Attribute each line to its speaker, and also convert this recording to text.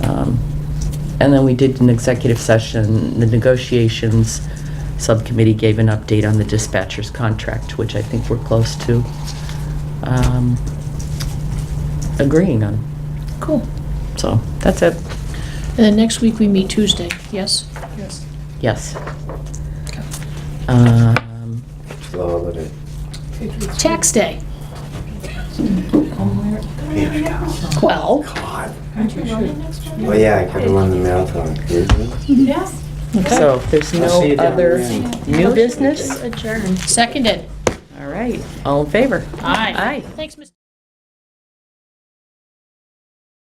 Speaker 1: Um, And then we did an executive session, the negotiations subcommittee gave an update on the dispatcher's contract, which I think we're close to um, agreeing on.
Speaker 2: Cool.
Speaker 1: So, that's it.
Speaker 2: And then next week, we meet Tuesday, yes?
Speaker 3: Yes.
Speaker 1: Yes. Um,
Speaker 4: It's the holiday.
Speaker 3: Patriots.
Speaker 2: Tax day.
Speaker 4: Patriots.
Speaker 2: Well,
Speaker 4: God.
Speaker 3: Aren't you running next Monday?
Speaker 4: Well, Oh, yeah, I could have run the marathon. Mhm.
Speaker 3: Yes.
Speaker 1: So, if there's
Speaker 4: I'll see
Speaker 1: no
Speaker 4: you down
Speaker 1: other
Speaker 4: there.
Speaker 1: new business?
Speaker 5: Adjourned.
Speaker 2: seconded.
Speaker 1: All right, all in favor?
Speaker 2: Aye.
Speaker 1: Aye.
Speaker 2: Thanks, Mr.